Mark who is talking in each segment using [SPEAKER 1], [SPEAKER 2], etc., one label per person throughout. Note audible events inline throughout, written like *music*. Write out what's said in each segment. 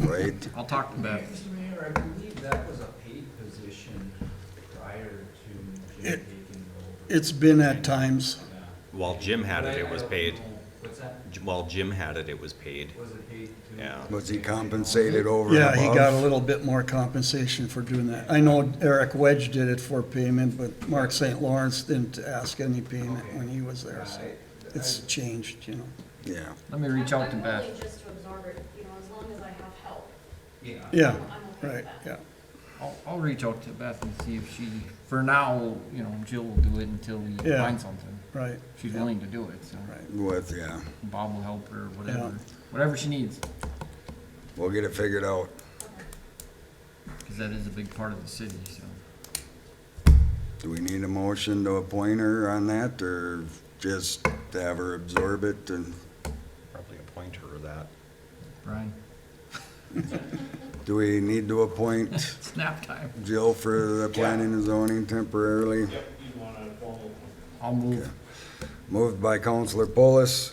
[SPEAKER 1] right?
[SPEAKER 2] I'll talk to Beth.
[SPEAKER 3] Mr. Mayor, I believe that was a paid position prior to Jim
[SPEAKER 4] It-
[SPEAKER 3] taking over.
[SPEAKER 4] It's been at times.
[SPEAKER 3] Yeah.
[SPEAKER 5] While Jim had
[SPEAKER 3] But
[SPEAKER 5] it,
[SPEAKER 3] I-
[SPEAKER 5] it
[SPEAKER 3] I
[SPEAKER 5] was
[SPEAKER 3] don't
[SPEAKER 5] paid.
[SPEAKER 3] know. What's that?
[SPEAKER 5] J- While Jim had it, it was paid.
[SPEAKER 3] Was it paid to?
[SPEAKER 5] Yeah.
[SPEAKER 1] Was he compensated over and
[SPEAKER 4] Yeah,
[SPEAKER 1] above?
[SPEAKER 4] he got a little bit more compensation for doing that. I know Eric Wedge did it for payment, but Mark St. Lawrence didn't ask any payment when he was there, so it's changed, you know.
[SPEAKER 1] Yeah,
[SPEAKER 2] Let me reach out to
[SPEAKER 6] I'm- I'm willing
[SPEAKER 2] Beth.
[SPEAKER 6] just to absorb it, you know, as long as I have help.
[SPEAKER 3] Yeah.
[SPEAKER 4] Yeah,
[SPEAKER 6] I'm okay with
[SPEAKER 4] right,
[SPEAKER 6] that.
[SPEAKER 4] yeah.
[SPEAKER 2] I'll, I'll reach out to Beth and see if she, for now, you know, Jill will do it until we
[SPEAKER 4] Yeah.
[SPEAKER 2] find something.
[SPEAKER 4] Right.
[SPEAKER 2] She's
[SPEAKER 4] yeah,
[SPEAKER 2] willing to do it, so
[SPEAKER 4] Right.
[SPEAKER 1] with, yeah,
[SPEAKER 2] Bob will help her,
[SPEAKER 4] Yeah.
[SPEAKER 2] whatever, whatever she needs,
[SPEAKER 1] we'll get it figured out.
[SPEAKER 2] because that is a big part of the city, so.
[SPEAKER 1] Do we need a motion to appoint her on that, or just to have her absorb it and
[SPEAKER 5] Probably appoint her that.
[SPEAKER 2] Brian, *laughs*
[SPEAKER 1] do we need to appoint
[SPEAKER 2] snap time.
[SPEAKER 1] Jill for the planning and zoning temporarily?
[SPEAKER 7] Yep, you want to follow.
[SPEAKER 2] I'll move.
[SPEAKER 1] Moved by Counselor Polis,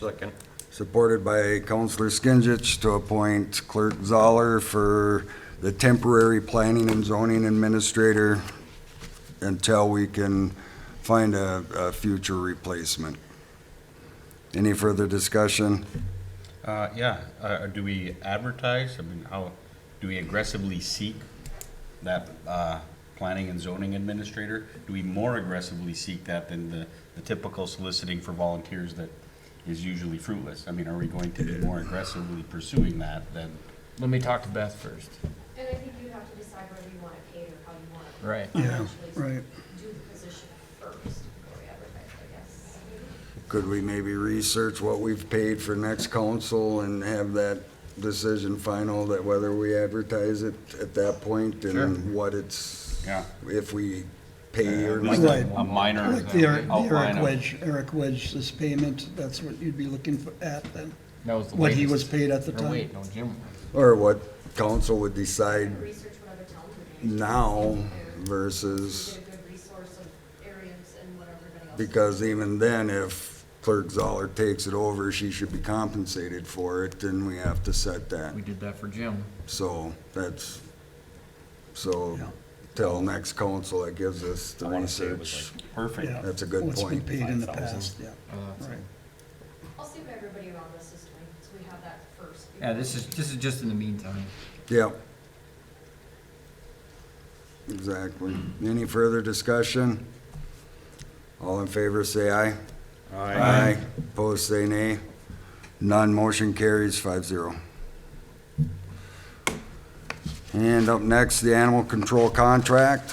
[SPEAKER 5] Second.
[SPEAKER 1] supported by Counselor Skinsich to appoint Clerk Zoller for the temporary planning and zoning administrator until we can find a, a future replacement. Any further discussion?
[SPEAKER 7] Uh, yeah, uh, do we advertise, I mean, how, do we aggressively seek that, uh, planning and zoning administrator? Do we more aggressively seek that than the, the typical soliciting for volunteers that is usually fruitless? I mean, are we going to be more aggressively pursuing that than,
[SPEAKER 2] Let me talk to Beth first.
[SPEAKER 6] And I think you have to decide whether you want it paid or how you want it.
[SPEAKER 2] Right.
[SPEAKER 4] Yeah,
[SPEAKER 6] Actually,
[SPEAKER 4] right.
[SPEAKER 6] Do the position first before we advertise, I guess.
[SPEAKER 1] Could we maybe research what we've paid for next council and have that decision final that whether we advertise it at that point and what it's,
[SPEAKER 7] yeah?
[SPEAKER 1] if we pay or
[SPEAKER 7] Like
[SPEAKER 1] not?
[SPEAKER 4] Right.
[SPEAKER 7] a- A minor
[SPEAKER 4] Like the Eric, the
[SPEAKER 7] outline
[SPEAKER 4] Eric
[SPEAKER 7] of,
[SPEAKER 4] Wedge, Eric Wedge's payment, that's what you'd be looking for at then,
[SPEAKER 2] That was the
[SPEAKER 4] what he
[SPEAKER 2] latest.
[SPEAKER 4] was paid at the
[SPEAKER 2] Or wait,
[SPEAKER 4] time.
[SPEAKER 2] no, Jim.
[SPEAKER 1] Or what council would
[SPEAKER 6] You
[SPEAKER 1] decide
[SPEAKER 6] can Research what other towns are doing.
[SPEAKER 1] now
[SPEAKER 6] And
[SPEAKER 1] versus,
[SPEAKER 6] Get a good resource of areas and what everybody else.
[SPEAKER 1] because even then, if Clerk Zoller takes it over, she should be compensated for it, then we have to set that.
[SPEAKER 2] We did that for Jim.
[SPEAKER 1] So that's, so
[SPEAKER 4] Yeah.
[SPEAKER 1] till next council, that gives us the
[SPEAKER 7] I want to say
[SPEAKER 1] research.
[SPEAKER 7] it was like perfect.
[SPEAKER 4] Yeah,
[SPEAKER 1] That's a good
[SPEAKER 4] What's been
[SPEAKER 1] point.
[SPEAKER 4] paid in the
[SPEAKER 7] 5,000.
[SPEAKER 4] past, yeah.
[SPEAKER 2] Uh, so-
[SPEAKER 4] Right.
[SPEAKER 6] I'll see what everybody around us is doing, so we have that first.
[SPEAKER 2] Yeah, this is, this is just in the meantime.
[SPEAKER 1] Yeah. Exactly. Any further discussion? All in favor, say aye. Aye. Opposed, say nay. None, motion carries five zero. And up next, the animal control contract.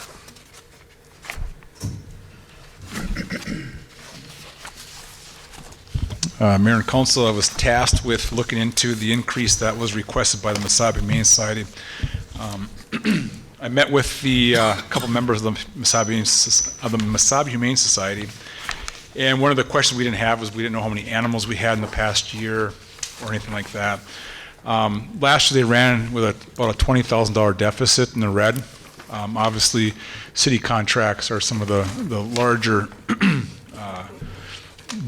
[SPEAKER 8] Uh, Mayor and council, I was tasked with looking into the increase that was requested by the Mesabi Humane Society. Um, *clears throat* I met with the, uh, couple members of the Mesabi, of the Mesabi Humane Society, and one of the questions we didn't have was we didn't know how many animals we had in the past year or anything like that. Um, Last year, they ran with a- about a $20,000 deficit in the red. Um, Obviously, city contracts are some of the the larger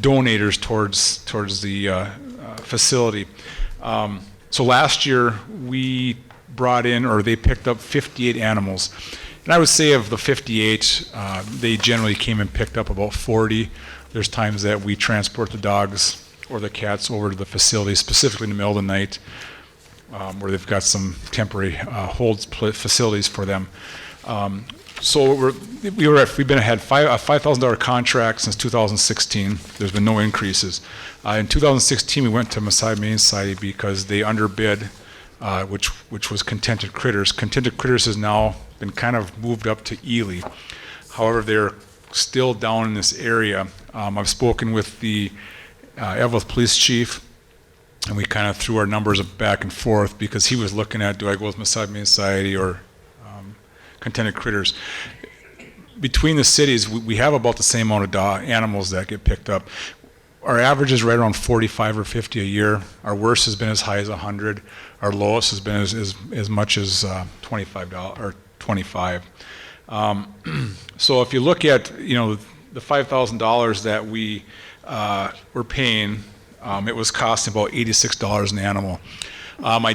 [SPEAKER 8] donators towards, towards the uh, uh, facility. Um, So last year, we brought in, or they picked up 58 animals. And I would say of the 58, uh, they generally came and picked up about 40. There's times that we transport the dogs or the cats over to the facility, specifically in the middle of the night, um, where they've got some temporary uh, hold pl- facilities for them. Um, So we're, we were, at- we've been, had five, a five thousand dollar contract since two thousand sixteen, there's been no increases. Uh, in two thousand sixteen, we went to Maasai Humane Society because they underbid, uh, which, which was contented critters. Contented critters has now been kind of moved up to Ely. However, they're still down in this area. Um, I've spoken with the, uh, Evlith Police Chief, and we kind of threw our numbers back and forth because he was looking at, do I go with Maasai Humane Society or um, Contented Critters? Between the cities, we- we have about the same amount of da- animals that get picked up. Our average is right around 45 or 50 a year. Our worst has been as high as 100. Our lowest has been as, as, as much as uh, 25 doll- or 25. Um, *clears throat* So if you look at, you know, the $5,000 that we uh, were paying, um, it was costing about $86 an animal. Um, I